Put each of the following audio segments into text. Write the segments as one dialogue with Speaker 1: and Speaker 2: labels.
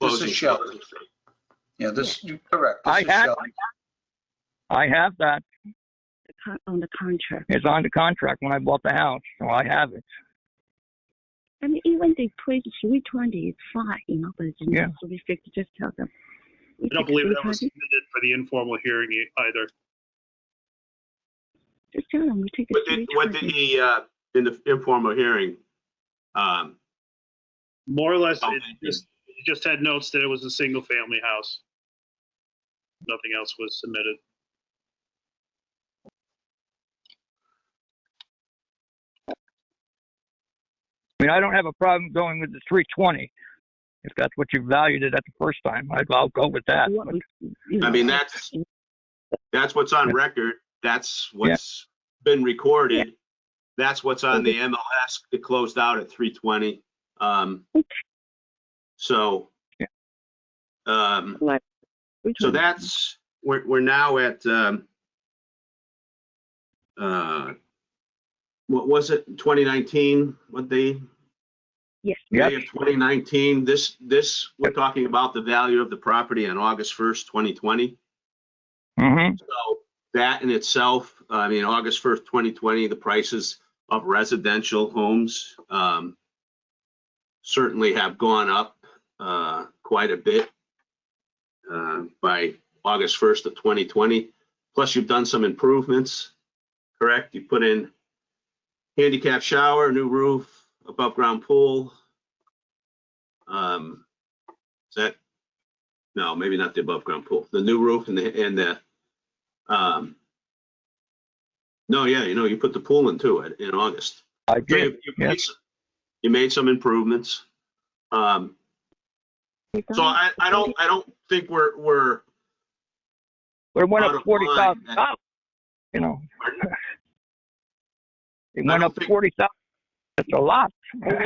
Speaker 1: this is show. Yeah, this, you're correct. This
Speaker 2: I
Speaker 1: is
Speaker 2: had-
Speaker 1: show.
Speaker 2: I have that.
Speaker 3: the con- on the contract.
Speaker 2: It's on the contract when I bought the house, so I have it.
Speaker 3: I mean, even they put 320, it's fine, you know, but it's
Speaker 2: Yeah.
Speaker 3: not so restricted. Just tell them.
Speaker 4: I don't believe that was submitted for the informal hearing e- either.
Speaker 3: Just tell them we take the
Speaker 5: What did, what did
Speaker 3: 320.
Speaker 5: he, uh, in the informal hearing, um,
Speaker 4: More or less,
Speaker 5: Oh,
Speaker 4: it
Speaker 5: thank you.
Speaker 4: just, it just had notes that it was a single-family house. Nothing else was submitted.
Speaker 2: I mean, I don't have a problem going with the 320. If that's what you valued it at the first time, I'd, I'll go with that.
Speaker 3: What we- you
Speaker 5: I
Speaker 3: know,
Speaker 5: mean, that's, that's what's on record, that's what's been recorded, that's what's on the MLS, it closed out at three twenty, um, so,
Speaker 2: Yeah.
Speaker 5: um,
Speaker 3: like,
Speaker 5: so
Speaker 3: 320.
Speaker 5: that's, we're, we're now at, um, uh, what was it, twenty nineteen, what they,
Speaker 3: Yes.
Speaker 2: Yep.
Speaker 5: May of 2019, this, this, we're talking about the value of the property on August 1st, 2020.
Speaker 2: Mm-hmm.
Speaker 5: So that in itself, uh, I mean, August 1st, 2020, the prices of residential homes um, certainly have gone up uh, quite a bit uh, by August 1st of 2020. Plus, you've done some improvements, correct? You put in handicap shower, new roof, above-ground pool. Um, Is that, no, maybe not the above-ground pool, the new roof and the, and the um, no, yeah, you know, you put the pool in too in- in August.
Speaker 2: I
Speaker 5: So
Speaker 2: did.
Speaker 5: You you
Speaker 2: yeah.
Speaker 5: made some- you made some improvements. Um, so
Speaker 3: Um,
Speaker 5: I, I don't, I don't think we're, we're,
Speaker 2: But it went
Speaker 5: Bottom
Speaker 2: up forty thousand
Speaker 5: line,
Speaker 2: dollars. You know,
Speaker 5: we're-
Speaker 2: it
Speaker 5: I
Speaker 2: went
Speaker 5: don't
Speaker 2: up to
Speaker 5: think-
Speaker 2: forty thousand. That's a lot.
Speaker 3: Then,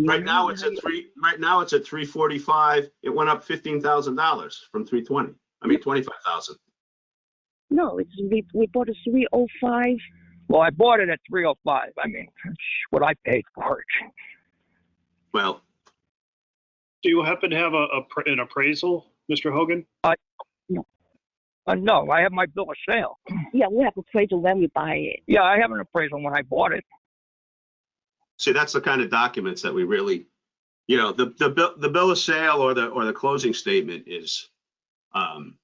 Speaker 3: you
Speaker 5: right
Speaker 3: know,
Speaker 5: now it's at three, right now it's at three forty-five. It went up fifteen thousand dollars from three twenty. I mean, twenty-five thousand.
Speaker 3: No, it's, we, we bought a 305.
Speaker 2: Well, I bought it at three oh five. I mean, that's what I paid for it.
Speaker 5: Well,
Speaker 4: Do you happen to have a, a pr- an appraisal, Mr. Hogan?
Speaker 2: Uh, no, I have my bill of sale.
Speaker 3: Yeah, we have appraisal when we buy it.
Speaker 2: Yeah, I have an appraisal when I bought it.
Speaker 5: see, that's the kind of documents that we really, you know, the, the bill, the bill of sale or the, or the closing statement is, um,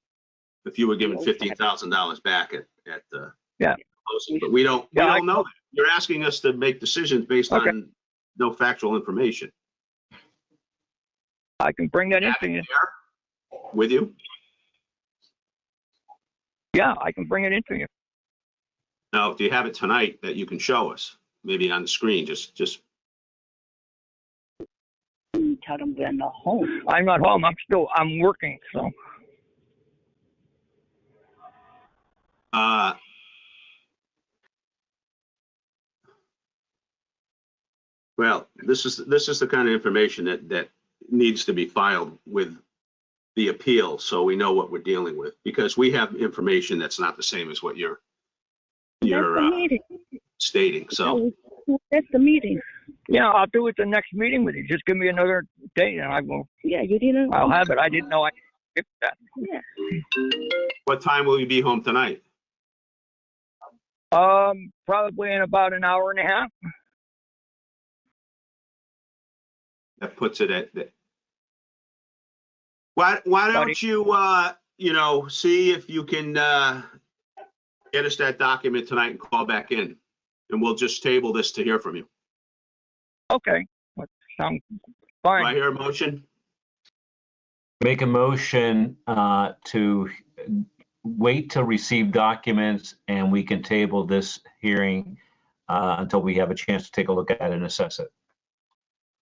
Speaker 5: if you were given fifteen thousand dollars back at, at the.
Speaker 2: Yeah.
Speaker 5: closing, But we don't, we
Speaker 2: Yeah, I-
Speaker 5: don't know. that. You're asking us to make decisions based
Speaker 2: Okay.
Speaker 5: on no factual information.
Speaker 2: I can bring that
Speaker 5: Have
Speaker 2: into
Speaker 5: you
Speaker 2: you.
Speaker 5: there With you?
Speaker 2: Yeah, I can bring it into you.
Speaker 5: Now, if you have it tonight that you can show us, maybe on the screen, just, just,
Speaker 3: We tell them we're not home.
Speaker 2: I'm not home. I'm still, I'm working, so.
Speaker 5: uh, well, this is, this is the kind of information that, that needs to be filed with the appeal, so we know what we're dealing with, because we have information that's not the same as what you're, you're,
Speaker 3: That's the
Speaker 5: uh,
Speaker 3: meeting.
Speaker 5: stating, so,
Speaker 3: That's the meeting.
Speaker 2: Yeah, I'll do it the next meeting with you. Just give me another date and I will,
Speaker 3: Yeah, you didn't.
Speaker 2: I'll have it. I didn't know I skipped that.
Speaker 3: Yeah.
Speaker 5: what time will you be home tonight?
Speaker 2: Um, probably in about an hour and a half.
Speaker 5: that puts it at that. Why, why don't you, uh, you know, see if you can, uh, get us that document tonight and call back in? And we'll just table this to hear from you.
Speaker 2: Okay, that sounds
Speaker 5: Do I
Speaker 2: fine.
Speaker 5: hear a motion?
Speaker 6: Make a motion uh, to wait to receive documents and we can table this hearing uh, until we have a chance to take a look at it and assess it.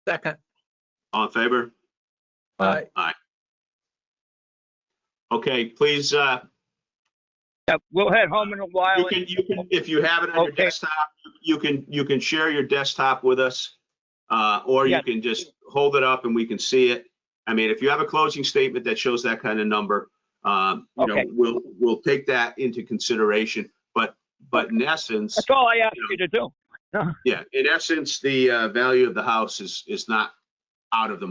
Speaker 1: Second.
Speaker 5: All in favor?
Speaker 1: Uh,
Speaker 6: Aye.
Speaker 5: Aye. Okay, please, uh,
Speaker 2: Yeah, We'll head home in a
Speaker 5: you
Speaker 2: while.
Speaker 5: can,
Speaker 2: and-
Speaker 5: you can, if you have it on your
Speaker 2: Okay.
Speaker 5: desktop, you can, you can share your desktop with us. Uh, or you
Speaker 2: Yeah.
Speaker 5: can just hold it up and we can see it. I mean, if you have a closing statement that shows that kind of number, um, you know,
Speaker 2: Okay.
Speaker 5: we'll, we'll take that into consideration. But, but in essence,
Speaker 2: That's all I asked you to do.
Speaker 5: yeah, in essence, the, uh, value of the house is, is not out of the